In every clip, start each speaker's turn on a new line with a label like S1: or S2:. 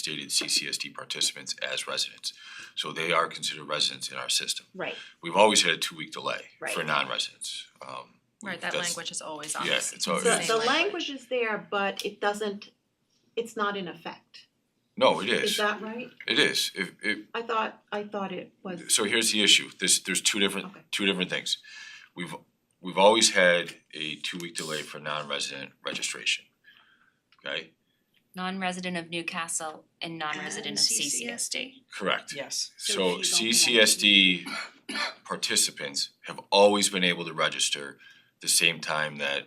S1: stated CCSD participants as residents. So they are considered residents in our system.
S2: Right,
S1: We've always had a two-week delay for
S2: Right.
S1: non-residents. Um, we-
S3: Right, that
S1: that's-
S3: language is always on
S1: Oh, Yeah,
S3: this.
S1: it's always-
S3: the
S2: the
S1: Right.
S2: the
S3: same
S2: language is there, but it doesn't, it's not in effect,
S1: No, it
S2: is
S1: is,
S2: that right?
S1: it is. If, if,
S2: I thought, I thought it was,
S1: so here's the issue, there's, there's two different,
S2: Okay.
S1: two different things. We've, we've always had a two-week delay for non-resident registration, okay?
S4: non-resident of Newcastle and non-resident of CCS.
S1: Correct.
S5: Yes.
S1: So CCSD participants have always been able to register the same time that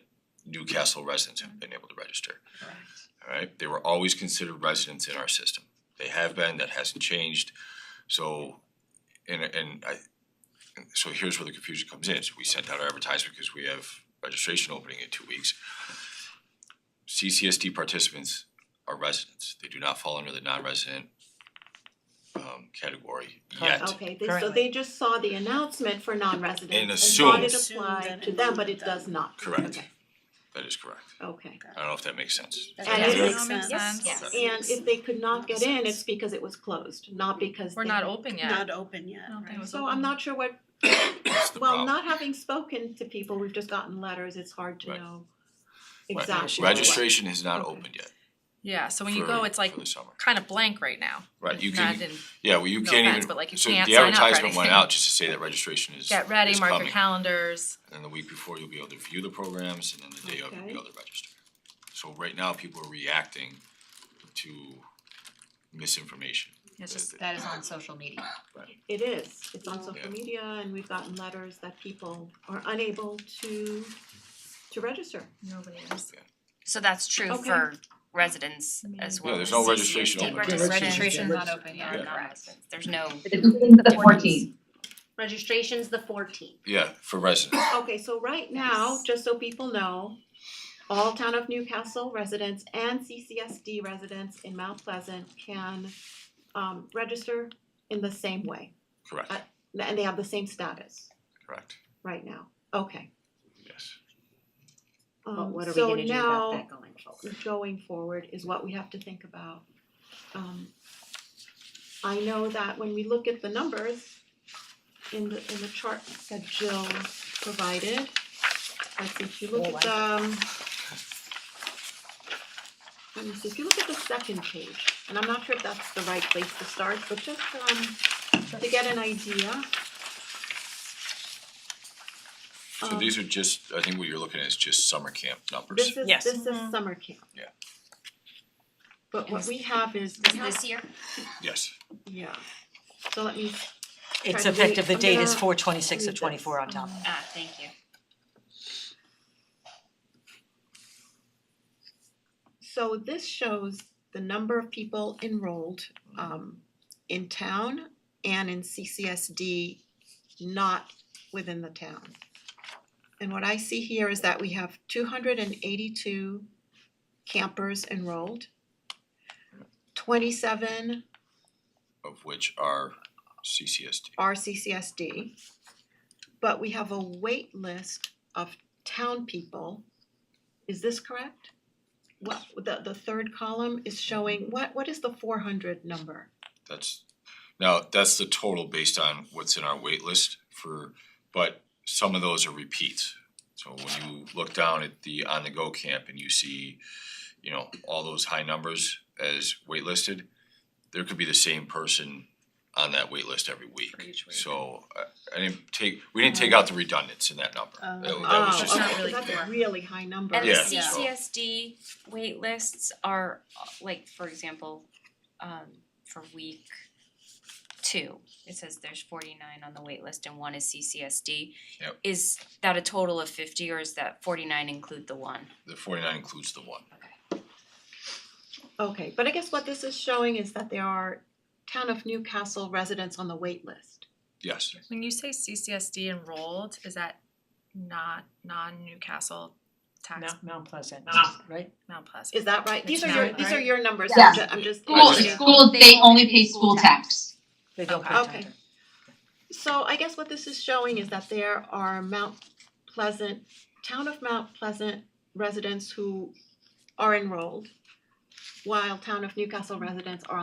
S1: Newcastle residents have been able to register. Alright, they were always considered residents in our system. They have been, that hasn't changed. So, and and I, so here's where the confusion comes in. So we sent out our advertisement because we have registration opening in two weeks. CCSD participants are residents. They do not fall under the non-resident um category yet.
S5: Correct.
S2: okay, they, so
S5: Currently.
S2: they just saw the announcement for
S1: And
S2: non-residents and thought it
S5: assumed-
S2: applied to them, but it does not.
S1: Correct. That is correct.
S2: Okay, okay.
S1: I don't know if that makes sense.
S4: That
S2: And
S4: does
S2: it
S4: make
S2: is-
S4: sense.
S3: yes.
S4: Yes.
S2: And if they could not get in, it's because it was closed, not because
S3: We're
S2: they-
S3: not open yet.
S6: Not open yet,
S3: I don't think it
S6: right?
S3: was
S2: So I'm
S3: open.
S2: not sure what,
S1: That's the
S2: well,
S1: problem.
S2: not having spoken to people, we've just gotten letters, it's hard to
S1: Right.
S2: know
S1: Right.
S2: exactly. what-
S1: Registration has not
S2: Okay.
S1: opened yet.
S3: Yeah, so when you
S1: for-
S3: go, it's like
S1: For the summer.
S3: kind of blank right now.
S1: Right, you
S3: Not
S1: can,
S3: in-
S1: yeah, well, you
S3: no
S1: can't
S3: offense,
S1: even,
S3: but, like, you
S1: so the
S3: can't sign up for
S1: advertisement went
S3: anything.
S1: out just to say that registration is, is coming.
S3: Get ready, mark your calendars.
S1: And then the week before, you'll be able to view the programs, and then the day of, you'll be
S2: Okay.
S1: able to register. So right now, people are reacting to misinformation.
S3: It's just,
S7: That is on social media.
S2: It is, it's on
S1: Yeah.
S2: social media and we've gotten letters that people are unable to to register.
S3: nobody is.
S4: So that's true
S2: Okay.
S4: for residents as
S1: Yeah,
S4: well
S1: there's
S4: as
S1: no registration
S4: CCSD.
S1: open.
S4: Registration's not
S7: Registration's
S4: open,
S7: not
S4: yeah,
S7: open, yeah.
S4: non-residents, there's no.
S7: The fourteenth.
S6: Registration's the fourteenth.
S1: Yeah, for residents,
S2: Okay, so right now,
S4: Yes.
S2: just so people know, all town of Newcastle residents and CCSD residents in Mount Pleasant can um register in the same way.
S1: correct,
S2: Uh, And they have the same status
S1: correct,
S2: right now, okay.
S1: yes.
S2: Um,
S6: what are we gonna do about that going
S2: So
S6: forward?
S2: now, going forward is what we have to think about. Um, I know that when we look at the numbers in the, in the chart that Jill provided, I see if you look at, um, let me see, if you look at the second page, and I'm not sure if that's the right place to start, but just, um, to get an idea.
S1: So these are just, I think what you're looking at is just summer camp numbers.
S2: um, This is,
S5: Yes.
S2: this is summer camp.
S1: Yeah.
S2: But what we have is, we have-
S4: This year,
S1: Yes,
S2: yeah, so let me, Trying
S5: It's
S2: to read-
S5: effective, the
S2: I'm
S5: date is
S2: gonna
S5: four twenty-six
S2: read
S5: of
S2: this.
S5: twenty-four on top.
S4: ah, thank you.
S2: so this shows the number of people enrolled um in town and in CCSD not within the town. And what I see here is that we have two hundred and eighty-two campers enrolled. Twenty-seven
S1: of which are CCSD.
S2: RCCSD. But we have a wait list of town people. Is this correct? What, the, the third column is showing, what, what is the four hundred number?
S1: That's, now, that's the total based on what's in our wait list for, but some of those are repeats. So when you look down at the on-the-go camp and you see, you know, all those high numbers as waitlisted, there could be the same person on that wait list every week. So I I didn't take, we didn't take out the redundants in that number. That that was
S2: Oh,
S1: just-
S3: not
S2: okay,
S3: really
S2: That's
S3: fair.
S2: a really high number.
S4: And the
S1: Yeah.
S4: CCSD waitlists are uh, like, for example, um for week two, it says there's forty nine on the waitlist and one is CCSD.
S1: Yep.
S4: Is that a total of fifty or is that forty nine include the one?
S1: The forty-nine includes the one.
S2: Okay, but I guess what this is showing is that there are town of Newcastle residents on the wait list.
S1: Yes,
S3: When you say CCSD enrolled, is that not non-Newcastle tax,
S5: Mount Pleasant,
S4: Ah.
S5: right?
S3: Mount Pleasant?
S2: Is that right? These are
S3: It's
S2: your,
S3: not,
S2: these are
S3: right?
S2: your numbers,
S7: Yeah.
S2: I'm ju- I'm just.
S7: School,
S1: Okay.
S7: school, they only pay school tax.
S4: Ah.
S5: They don't pay
S2: Okay.
S5: attention.
S2: So I guess what this is showing is that there are Mount Pleasant, town of Mount Pleasant residents who are enrolled, while town of Newcastle residents are on